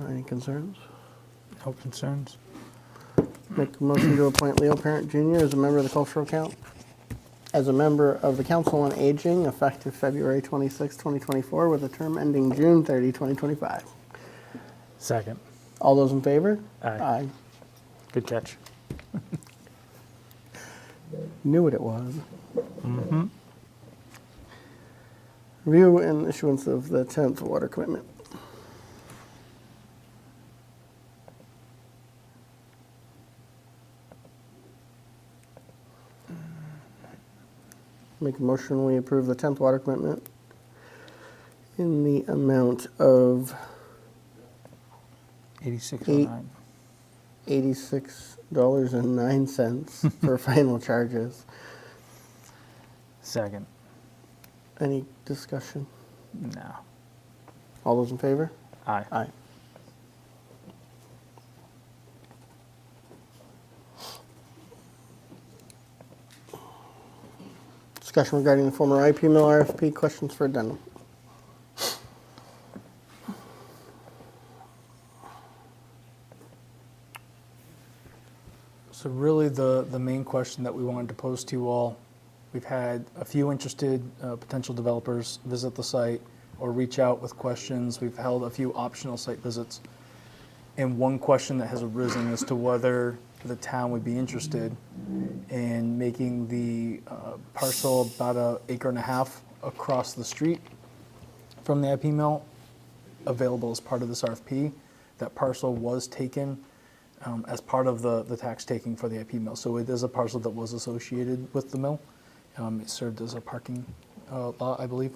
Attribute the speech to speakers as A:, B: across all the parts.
A: Uh, Any concerns?
B: No concerns?
A: Make a motion to appoint Leo Parent Jr. as a member of the Cultural Count, as a member of the Council on Aging, effective February 26, 2024, with a term ending June 30, 2025.
B: Second.
A: All those in favor?
B: Aye. Good catch.
A: Knew what it was. Review and issuance of the 10th water commitment. Make a motion, we approve the 10th water commitment in the amount of
B: 8609.
A: $86.09 for final charges.
B: Second.
A: Any discussion?
B: No.
A: All those in favor?
B: Aye.
A: Aye. Discussion regarding the former IP mill RFP, questions for addendum.
C: So really, the, the main question that we wanted to pose to you all, we've had a few interested uh, potential developers visit the site or reach out with questions. We've held a few optional site visits. And one question that has arisen as to whether the town would be interested in making the uh, parcel about an acre and a half across the street from the IP mill available as part of this RFP. That parcel was taken um, as part of the, the tax taking for the IP mill. So it is a parcel that was associated with the mill. Um, it served as a parking uh, lot, I believe.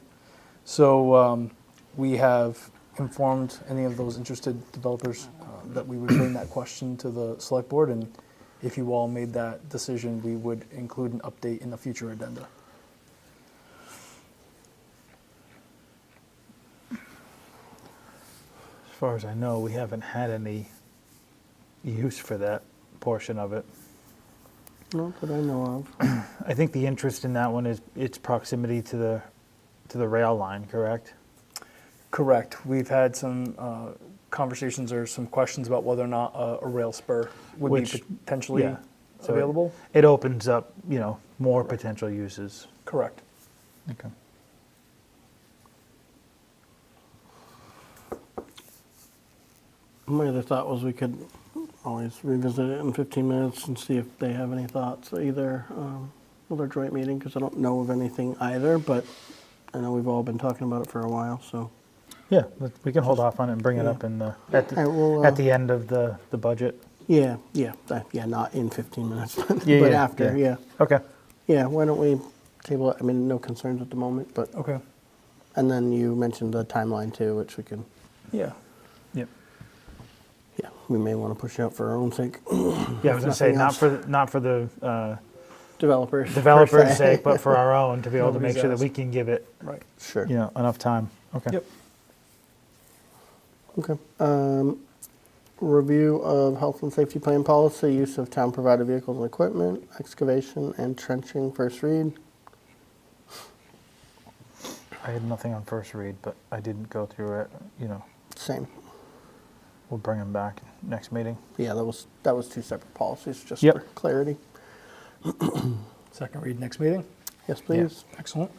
C: So um, we have informed any of those interested developers uh, that we would bring that question to the select board. And if you all made that decision, we would include an update in the future addenda.
B: As far as I know, we haven't had any use for that portion of it.
A: Not that I know of.
B: I think the interest in that one is its proximity to the, to the rail line, correct?
C: Correct. We've had some uh, conversations or some questions about whether or not a, a rail spur would be
B: Which-
C: potentially
B: yeah. So it-
C: available.
B: It opens up, you know, more potential uses.
C: Correct.
B: Okay.
A: My other thought was we could always revisit it in 15 minutes and see if they have any thoughts, either um, with our joint meeting, because I don't know of anything either, but I know we've all been talking about it for a while, so.
B: Yeah, let- we can hold off on it and bring it
A: Yeah.
B: up in the, at
A: I
B: the,
A: will, uh,
B: at the end of the, the budget.
A: Yeah, yeah, that- yeah. Not in 15 minutes, but,
B: Yeah,
A: but
B: yeah,
A: after. Yeah.
B: yeah. Okay.
A: yeah, Why don't we table it? I mean, no concerns at the moment, but
C: Okay.
A: and then you mentioned the timeline too, which we can.
C: Yeah.
B: Yep.
A: Yeah, we may want to push out for our own sake.
B: Yeah, I was gonna say,
A: nothing
B: not
A: else.
B: for, the- not for the uh,
A: Developers. per
B: developer's
A: se.
B: sake, but for our own, to be able to
C: Nobody's
B: make sure that
C: asked.
B: we can give it,
C: Right.
A: Sure.
B: you know, enough time. Okay.
C: Yep.
A: Okay. Um, review of health and safety plan policy, use of town provided vehicles and equipment, excavation and trenching. First read.
B: I had nothing on first read, but I didn't go through it, you know,
A: Same.
B: we'll bring them back next meeting.
A: Yeah, that was that was two separate policies, just
B: Yep.
A: for clarity.
C: Second read next meeting.
A: Yes, please.
C: Excellent.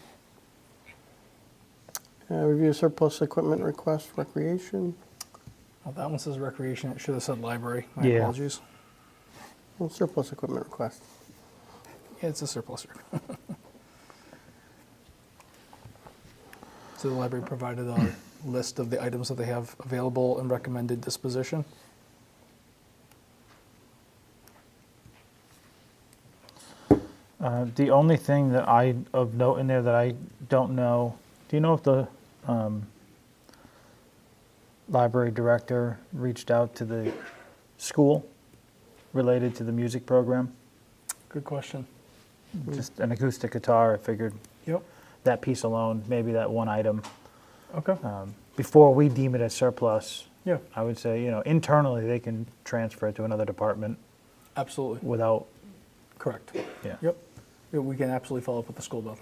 A: Uh, Review surplus equipment request, recreation.
C: Well, that one says recreation. It should have said library. My
B: Yeah.
C: apologies.
A: Well, surplus equipment request.
C: Yeah, it's a surplus. so the library provided a list of the items that they have available and recommended disposition.
B: Uh, The only thing that I, of note in there that I don't know, do you know if the um, library director reached out to the school related to the music program?
C: Good question. Hmm.
B: Just an acoustic guitar, I figured
C: Yep.
B: that piece alone, maybe that one item,
C: Okay.
B: um, before we deem it a surplus,
C: yeah.
B: I would say, you know, internally, they can transfer it to another department
C: Absolutely.
B: without,
C: Correct.
B: yeah.
C: Yep. Yeah, we can absolutely follow up with the school about that.